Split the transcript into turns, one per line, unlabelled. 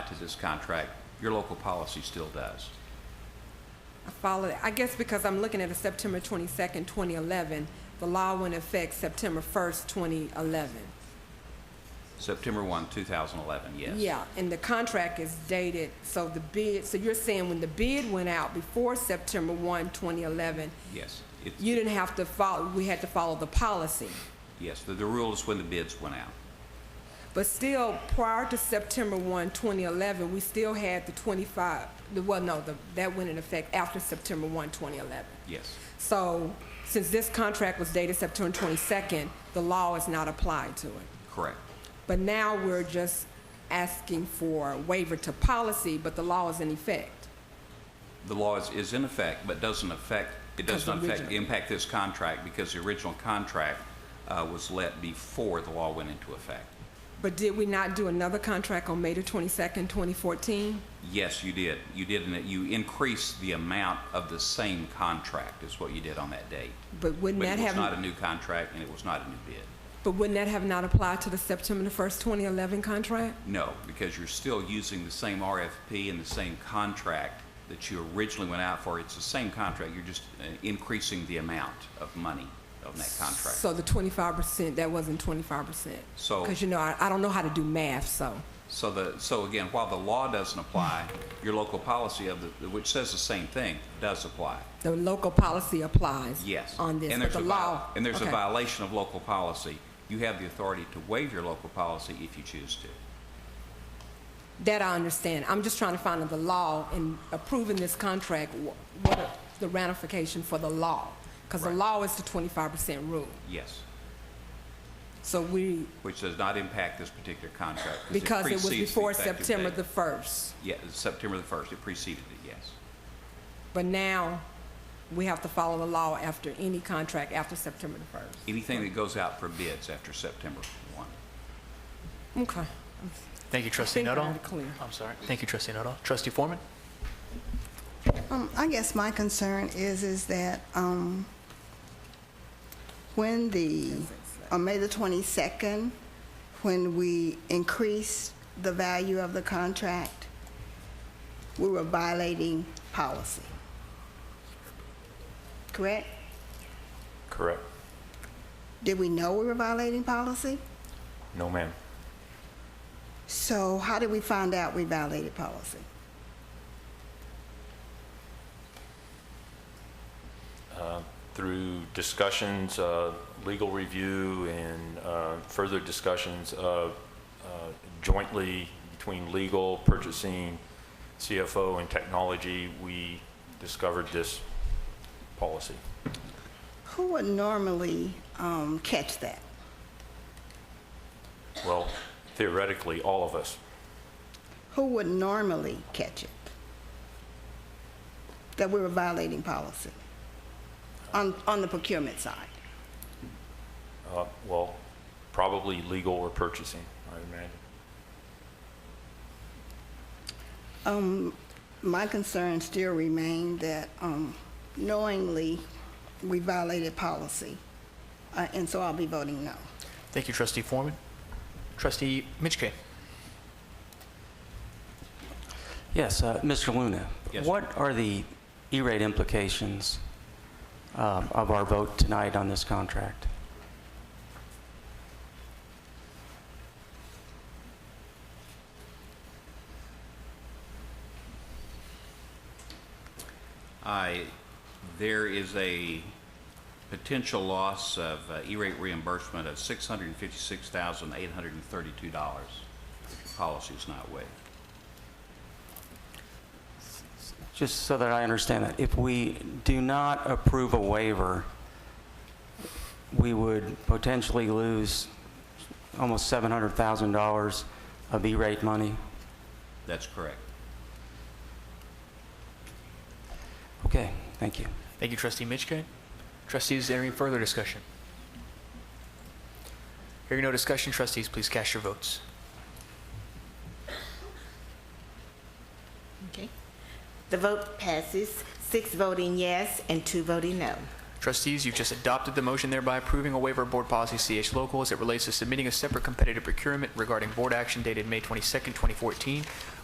this contract, your local policy still does.
I follow that. I guess because I'm looking at a September twenty-second, twenty eleven, the law went into effect September first, twenty eleven.
September 1, 2011, yes.
Yeah, and the contract is dated, so the bid, so you're saying when the bid went out before September one, twenty eleven,
Yes. It's-
you didn't have to follow, we had to follow the policy.
Yes, the the rule is when the bids went out.
But still, prior to September 1, 2011, we still had the 25, the- well, no, the- that went in effect after September 1, 2011.
Yes.
So since this contract was dated September 22nd, the law is not applied to it.
Correct.
But now we're just asking for waiver to policy, but the law is in effect.
The law is, is in effect, but doesn't affect, it
Because
doesn't affect,
originally-
impact this contract because the original contract uh, was let before the law went into effect.
But did we not do another contract on May the 22nd, 2014?
Yes, you did. You did, and you increased the amount of the same contract is what you did on that date.
But wouldn't
But
that
it was not a
have,
new contract and it was not a new bid.
but wouldn't that have not applied to the September the 1st, 2011 contract?
No, because you're still using the same RFP and the same contract that you originally went out for. It's the same contract, you're just uh, increasing the amount of money on that contract.
So the twenty-five percent, that wasn't twenty-five percent.
So-
Because you know, I, I don't know how to do math, so.
So the, so again, while the law doesn't apply, your local policy of the, which says the same thing, does apply.
The local policy applies.
Yes.
On this,
And
but
there's
the
a vi-
law.
And there's a
okay.
violation of local policy. You have the authority to waive your local policy if you choose to.
That I understand. I'm just trying to find out the law in approving this contract, wh- what are the ramification for the law? Because the
Right.
law is the twenty-five percent rule.
Yes.
So we,
Which does not impact this particular contract.
because it was
precedes the
before
effective
September
date.
the first,
Yeah, September the 1st, it preceded it, yes.
but now we have to follow the law after any contract after September the first.
Anything that goes out for bids after September 1.
Okay.
Thank you, Trustee
think we're
Nuttall.
already clear.
I'm sorry. Thank you, Trustee Nuttall. Trustee Foreman?
Um, I guess my concern is, is that, um, when the, on May the 22nd, when we increased the value of the contract, we were violating policy. Correct?
Correct.
Did we know we were violating policy?
No, ma'am.
So how did we find out we violated policy?
Through discussions, uh, legal review, and uh, further discussions of uh, jointly between legal, purchasing, CFO, and technology, we discovered this policy.
Who would normally, um, catch that?
Well, theoretically, all of us.
who would normally catch it that we were violating policy on, on the procurement side?
Uh, Well, probably legal or purchasing, I imagine.
Um, my concern still remain that, um, knowingly, we violated policy, uh, and so I'll be voting no.
Thank you, Trustee Foreman. Trustee Mitchke?
Yes, uh, Mr. Luna.
Yes, sir.
What are the E-rate implications uh, of our vote tonight on this contract?
I, there is a potential loss of uh, E-rate reimbursement of $656,832 if the policy is not waived.
Just so that I understand that, if we do not approve a waiver, we would potentially lose almost $700,000 of E-rate money?
That's correct.
Okay, thank you.
Thank you, Trustee Mitchke. Trustees, is there any further discussion? Hearing no discussion, trustees, please cast your votes.
Okay. The vote passes, six voting yes and two voting no.
Trustees, you've just adopted the motion thereby approving a waiver of Board Policy CH Local as it relates to submitting a separate competitive procurement regarding board action dated May 22nd, 2014,